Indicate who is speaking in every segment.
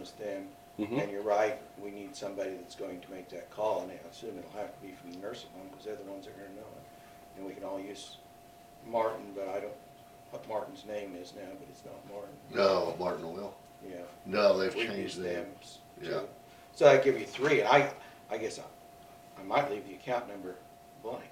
Speaker 1: is them.
Speaker 2: Mm-hmm.
Speaker 3: Mhm.
Speaker 1: And you're right, we need somebody that's going to make that call, and I assume it'll have to be from the nursing home, because they're the ones that are gonna know it. And we can all use Martin, but I don't, what Martin's name is now, but it's not Martin,
Speaker 2: No, Martin will.
Speaker 1: yeah.
Speaker 2: No, they've
Speaker 1: We've
Speaker 2: changed
Speaker 1: used
Speaker 2: that.
Speaker 1: them, s-
Speaker 2: Yeah.
Speaker 1: too. So I give you three, and I, I guess I, I might leave the account number blank.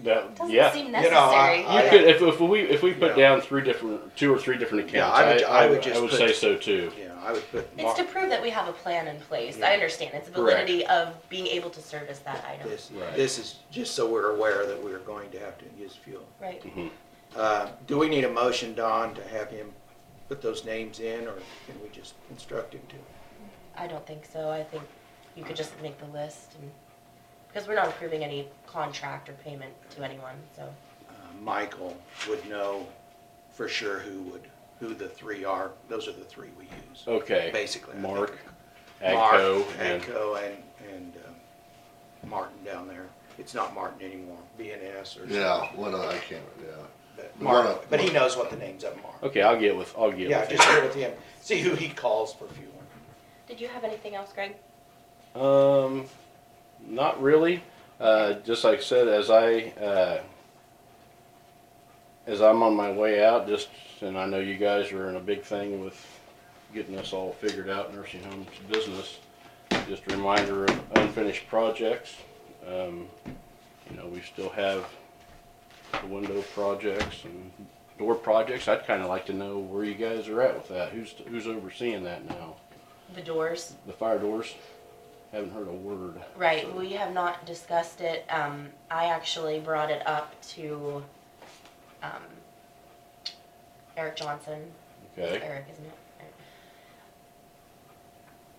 Speaker 3: That,
Speaker 4: Doesn't
Speaker 3: yeah.
Speaker 4: seem
Speaker 1: You know, I-
Speaker 4: necessary.
Speaker 1: I-
Speaker 3: You could, if, if we, if we put
Speaker 1: Yeah.
Speaker 3: down three different, two or three different
Speaker 1: Yeah,
Speaker 3: accounts,
Speaker 1: I would- I
Speaker 3: I, I
Speaker 1: would
Speaker 3: would, I
Speaker 1: just
Speaker 3: would
Speaker 1: put-
Speaker 3: say so too.
Speaker 1: You know, I would put
Speaker 4: It's
Speaker 1: Mark,
Speaker 4: to prove that we have a plan in place.
Speaker 1: Yeah.
Speaker 4: I understand. It's the
Speaker 3: Correct.
Speaker 4: validity of being able to service that item.
Speaker 1: this,
Speaker 3: Right.
Speaker 1: this is, just so we're aware that we're going to have to use fuel.
Speaker 4: Right.
Speaker 1: Uh, Do we need a motion, Don, to have him put those names in, or can we just instruct him to?
Speaker 4: I don't think so. I think you could just make the list and, because we're not approving any contract or payment to anyone, so.
Speaker 1: Uh, Michael would know for sure who would, who the three are. Those are the three we use,
Speaker 3: Okay,
Speaker 1: basically. I think.
Speaker 3: Mark,
Speaker 1: Mark,
Speaker 3: Agco, and,
Speaker 1: Agco and, and um, Martin down there. It's not Martin anymore, BNS or.
Speaker 2: Yeah, one of, I can't, yeah.
Speaker 1: but
Speaker 2: The
Speaker 1: Mark-
Speaker 2: one up-
Speaker 1: But he knows what the names of them are.
Speaker 3: okay, I'll get with, I'll get
Speaker 1: Yeah,
Speaker 3: with
Speaker 1: just
Speaker 3: him.
Speaker 1: share with him. See who he calls for fuel.
Speaker 4: Did you have anything else, Greg?
Speaker 3: Um, not really. Uh, just like I said, as I uh, as I'm on my way out, just and I know you guys are in a big thing with getting this all figured out, nursing homes business. Just a reminder of unfinished projects. Um, you know, we still have the window projects and door projects. I'd kind of like to know where you guys are at with that. Who's who's overseeing that now?
Speaker 4: The doors?
Speaker 3: The fire doors? Haven't heard a word.
Speaker 4: Right, we have not discussed it. Um, I actually brought it up to, um, Eric Johnson,
Speaker 3: Okay.
Speaker 4: Eric, isn't it? Eric.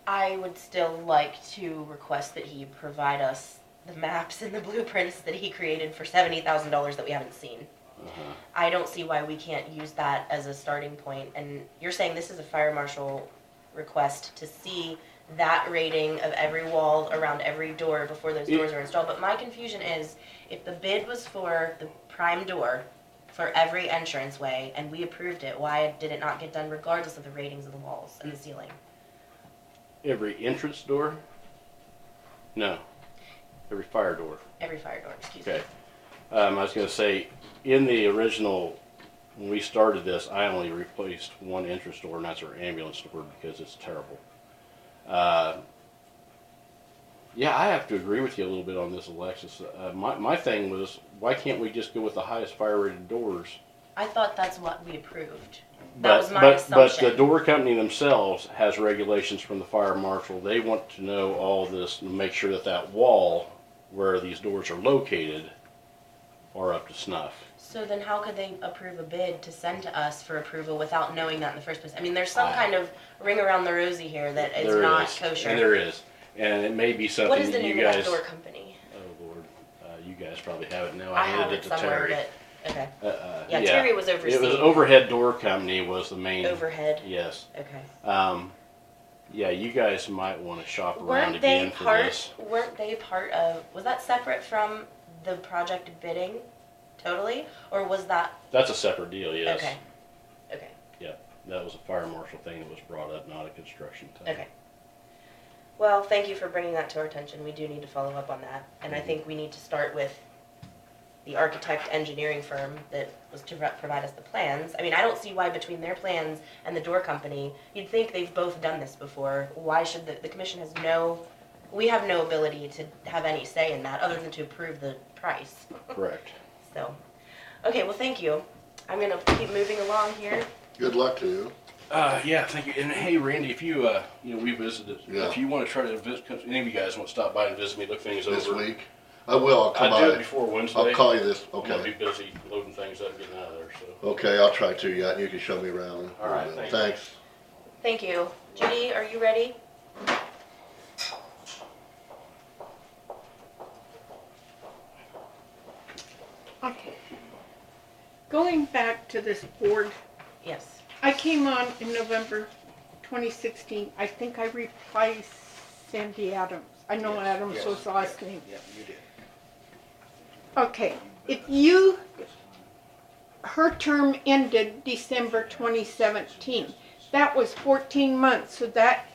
Speaker 4: I would still like to request that he provide us the maps and the blueprints that he created for seventy thousand dollars that we haven't seen.
Speaker 3: Uh-huh.
Speaker 4: I don't see why we can't use that as a starting point, and you're saying this is a fire marshal request to see that rating of every wall around every door before those
Speaker 3: It-
Speaker 4: doors are installed, but my confusion is, if the bid was for the prime door for every entrance way, and we approved it, why did it not get done regardless of the ratings of the walls and the ceiling?
Speaker 3: Every entrance door? No. Every fire door.
Speaker 4: Every fire door, excuse me.
Speaker 3: Okay. Um, I was gonna say, in the original, when we started this, I only replaced one entrance door, and that's our ambulance door because it's terrible. Uh, yeah, I have to agree with you a little bit on this, Alexis. Uh, my my thing was, why can't we just go with the highest fire rated doors
Speaker 4: I thought that's what we approved. That
Speaker 3: But,
Speaker 4: was my
Speaker 3: but, but the
Speaker 4: assumption.
Speaker 3: door company themselves has regulations from the fire marshal. They want to know all this and make sure that that wall where these doors are located are up to snuff.
Speaker 4: So then how could they approve a bid to send to us for approval without knowing that in the first place? I mean, there's some
Speaker 3: I-
Speaker 4: kind of ring around the rosy here that it's
Speaker 3: There
Speaker 4: not
Speaker 3: is, and
Speaker 4: kosher.
Speaker 3: there is, and it may be
Speaker 4: What
Speaker 3: something
Speaker 4: is the
Speaker 3: that you
Speaker 4: name of that
Speaker 3: guys.
Speaker 4: door company?
Speaker 3: Oh Lord, uh, you guys probably have it now.
Speaker 4: I
Speaker 3: I
Speaker 4: have
Speaker 3: handed it
Speaker 4: it
Speaker 3: to
Speaker 4: somewhere,
Speaker 3: Terry.
Speaker 4: but, okay.
Speaker 3: Uh, uh,
Speaker 4: Yeah, Terry was
Speaker 3: It was
Speaker 4: overseeing
Speaker 3: Overhead Door Company was the main.
Speaker 4: overhead,
Speaker 3: Yes.
Speaker 4: okay.
Speaker 3: Um, yeah, you guys might want to shop around
Speaker 4: Weren't
Speaker 3: again
Speaker 4: they
Speaker 3: for this.
Speaker 4: part, weren't they part of, was that separate from the project bidding totally? Or was that,
Speaker 3: That's a separate deal. Yes.
Speaker 4: okay, okay,
Speaker 3: That was a fire marshal thing that was brought up, not a construction thing.
Speaker 4: okay. Well, thank you for bringing that to our attention. We do need to follow up on that. And I think we need to start with the architect engineering firm that was to pro- provide us the plans. I mean, I don't see why between their plans and the door company, you'd think they've both done this before. Why should the, the commission has no, we have no ability to have any say in that other than to approve the price.
Speaker 3: Correct.
Speaker 4: So, okay, well, thank you. I'm gonna keep moving along here.
Speaker 2: Good luck to you.
Speaker 3: Uh, yeah, thank you. And hey, Randy, if you, uh, you know, we visited,
Speaker 2: Yeah.
Speaker 3: if you want to try to visit, if any of you guys want to stop by and visit me, look things over.
Speaker 2: This week? I will, I'll come
Speaker 3: I'll do it
Speaker 2: by.
Speaker 3: before Wednesday.
Speaker 2: I'll call you this,
Speaker 3: I'm gonna
Speaker 2: okay.
Speaker 3: be busy loading things up, getting out of there, so.
Speaker 2: Okay, I'll try to, yeah, and you can show me around.
Speaker 3: All right, thank you.
Speaker 2: Thanks.
Speaker 4: Thank you. Judy, are you ready?
Speaker 5: Okay. Going back to this board,
Speaker 4: Yes.
Speaker 5: I came on in November 2016. I think I replaced Sandy Adams. I know
Speaker 1: Yes,
Speaker 5: Adams
Speaker 1: yes,
Speaker 5: was the last
Speaker 1: yeah,
Speaker 5: name.
Speaker 1: Yeah, you did.
Speaker 5: Okay. If you, her term ended December 2017. That was 14 months, so that